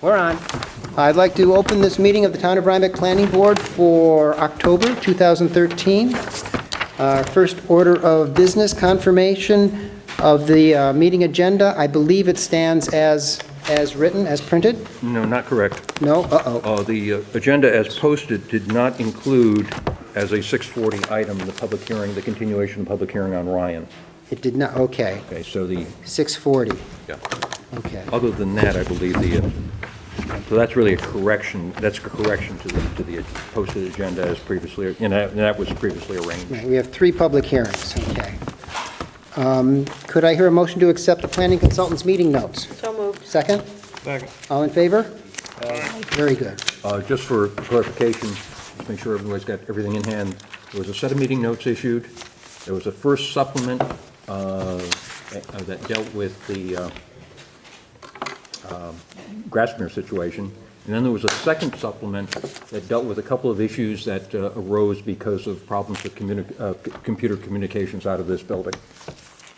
We're on. I'd like to open this meeting of the Town of Rhinebeck Planning Board for October 2013. Our Uh, first order of business, confirmation of the uh, meeting agenda. I believe it stands as, as written, as printed? No, not correct. No? Uh-oh. Uh, The uh, agenda as posted did not include as a 6:40 item the public hearing, the continuation of the public hearing on Ryan. It did not, okay. Okay, so the, 6:40, yeah. okay. other than that, I believe the, uh, so that's really a correction, that's a correction to the, to the posted agenda as previously, and that and that was previously arranged. Right, We have three public hearings, okay. Um, Could I hear a motion to accept the planning consultant's meeting notes? So moved. Second? Second. All in favor? Very good. Uh, Just for clarification, just make sure everybody's got everything in hand, there was a set of meeting notes issued, there was a first supplement uh, uh, that dealt with the uh, um, Grassmere situation, and then there was a second supplement that dealt with a couple of issues that uh, arose because of problems with communi- uh, c- computer communications out of this building.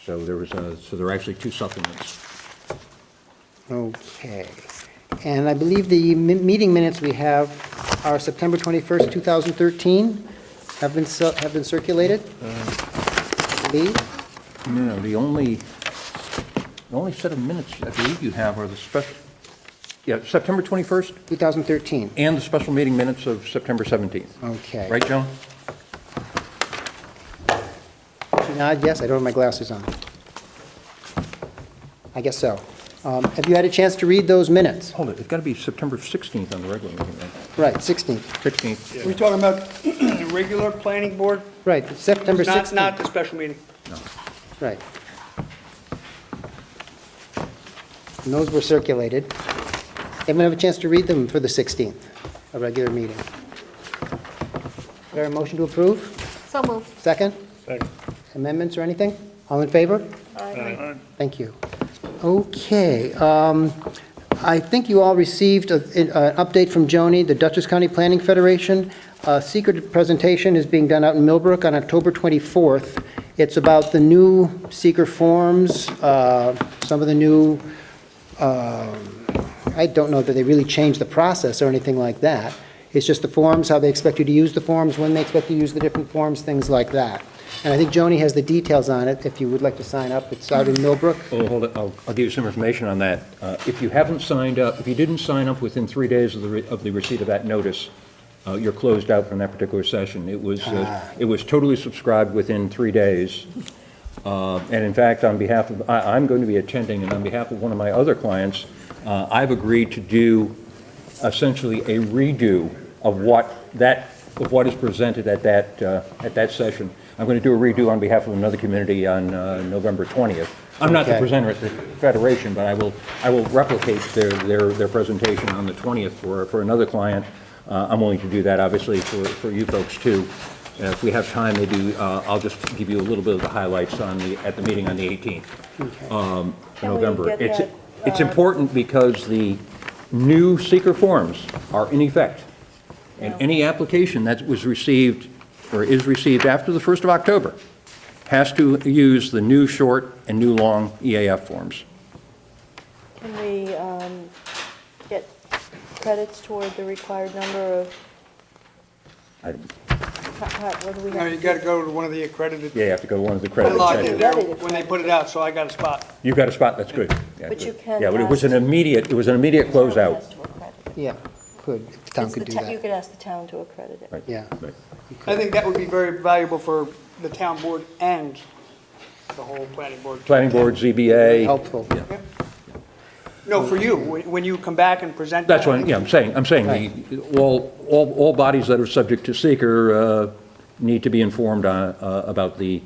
So there was, a- so there are actually two supplements. Okay. And I believe the mi- meeting minutes we have are September 21st, 2013, have been, cir- have been circulated? Lee? No, the only, the only set of minutes I believe you have are the special, yeah, September 21st 2013, and the special meeting minutes of September 17th. okay. Right, Joan? She nod, yes, I don't have my glasses on. I guess so. Um, Have you had a chance to read those minutes? Hold it, it's got to be September 16th on the regular meeting, Right, right? 16th, 16th, We're talking about the regular planning board, right, September not, 16th. not the special meeting. Right. And those were circulated. Anyone have a chance to read them for the 16th, a regular meeting? There a motion to approve? So moved. Second? Amendments or anything? All in favor? Thank you. Okay, um, I think you all received a- an uh, update from Joni, the Dutchess County Planning Federation. A secret presentation is being done out in Millbrook on October 24th. It's about the new seeker forms, uh, some of the new, um, I don't know that they really changed the process or anything like that. It's just the forms, how they expect you to use the forms, when they expect you to use the different forms, things like that. And I think Joni has the details on it, if you would like to sign up. It's out in Millbrook. well, Oh, hold it, I'll, I'll give you some information on that. Uh, If you haven't signed up, if you didn't sign up within three days of the, re- of the receipt of that notice, uh, you're closed out from that particular session. It was, uh, it was totally subscribed within three days. Uh, And in fact, on behalf of, I, I'm going to be attending, and on behalf of one of my other clients, uh, I've agreed to do essentially a redo of what that, of what is presented at that, uh, at that session. I'm going to do a redo on behalf of another community on uh, November 20th. I'm not the Okay. presenter at the Federation, but I will, I will replicate their, their, their presentation on the 20th for, for another client. Uh, I'm willing to do that, obviously, for, for you folks, too. And If we have time, maybe uh, I'll just give you a little bit of the highlights on the, at the meeting on the 18th, um, Can we November. get It's, that, uh, it's important because the new seeker forms are in effect. And any application that was received, or is received after the 1st of October, has to use the new short and new long EAF forms. Can we um, get credits toward the required number of, I- how- how- what do we No, you have? gotta go to one of the accredited. Yeah, you have to go to one of the I credit logged in sessions. there when they put it out, so I got a spot. You've got a spot, that's good. Yeah, But you good. can Yeah, but it was an ask- immediate, it was an immediate closeout. Has to accredit it. Yeah, could, the town It's could the do ta- You that. could ask the town to accredit it. Right. Yeah. Right. I think that would be very valuable for the town board and the whole planning board. Planning Board, ZBA, Helpful. No, for you, when when you come back and present. that's that, what, yeah, I'm saying, I'm saying, the- all, all all bodies that are subject to seeker uh, need to be informed on- uh, about the,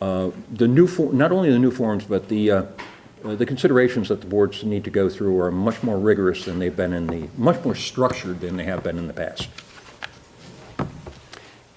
uh, the new, for- not only the new forms, but the, uh, uh, the considerations that the boards need to go through are much more rigorous than they've been in the, much more structured than they have been in the past.